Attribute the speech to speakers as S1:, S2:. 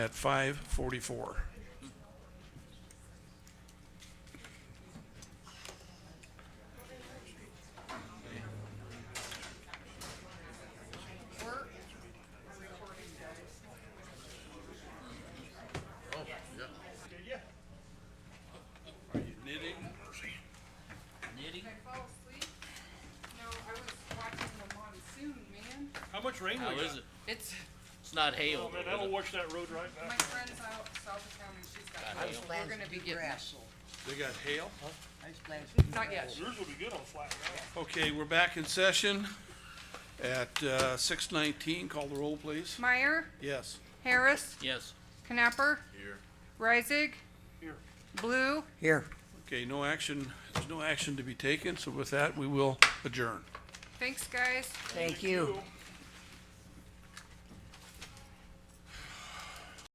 S1: at five forty-four.
S2: Knitting?
S3: I fall asleep? No, I was watching the monsoon, man.
S4: How much rain
S2: How
S4: we got?
S2: is it?
S3: It's,
S2: It's not hail.
S4: Oh man,
S2: though,
S4: that'll
S2: is it?
S4: wash that road right
S3: my
S4: back.
S3: friend's out south of town and she's got,
S2: Got
S3: hail.
S2: hail.
S3: we're gonna be getting, it.
S5: grass.
S1: They got hail?
S3: not yet.
S4: Yours will be good on flat ground.
S1: Okay, we're back in session at, uh, six nineteen. Call the roll, please.
S3: Meyer,
S1: Yes.
S3: Harris,
S2: Yes.
S3: Knapper. Here. Reisig,
S4: Here,
S3: Blue.
S5: Here.
S1: Okay, no action, there's no action to be taken, so with that, we will adjourn.
S3: Thanks, guys.
S5: Thank you.
S4: cool.